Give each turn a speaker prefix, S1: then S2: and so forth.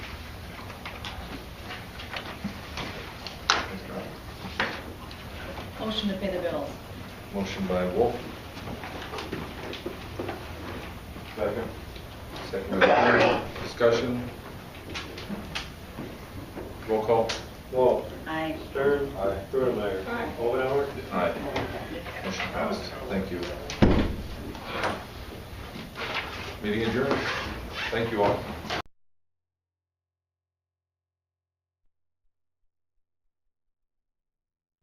S1: Motion to pay the bills.
S2: Motion by Wolf. Second. Second by Perry. Discussion. Roll call.
S3: Wolf.
S1: Aye.
S3: Stern.
S2: Aye.
S3: Grunemeyer. Aye. Omenauer.
S2: Aye. Motion passed. Thank you. Meeting adjourned. Thank you all.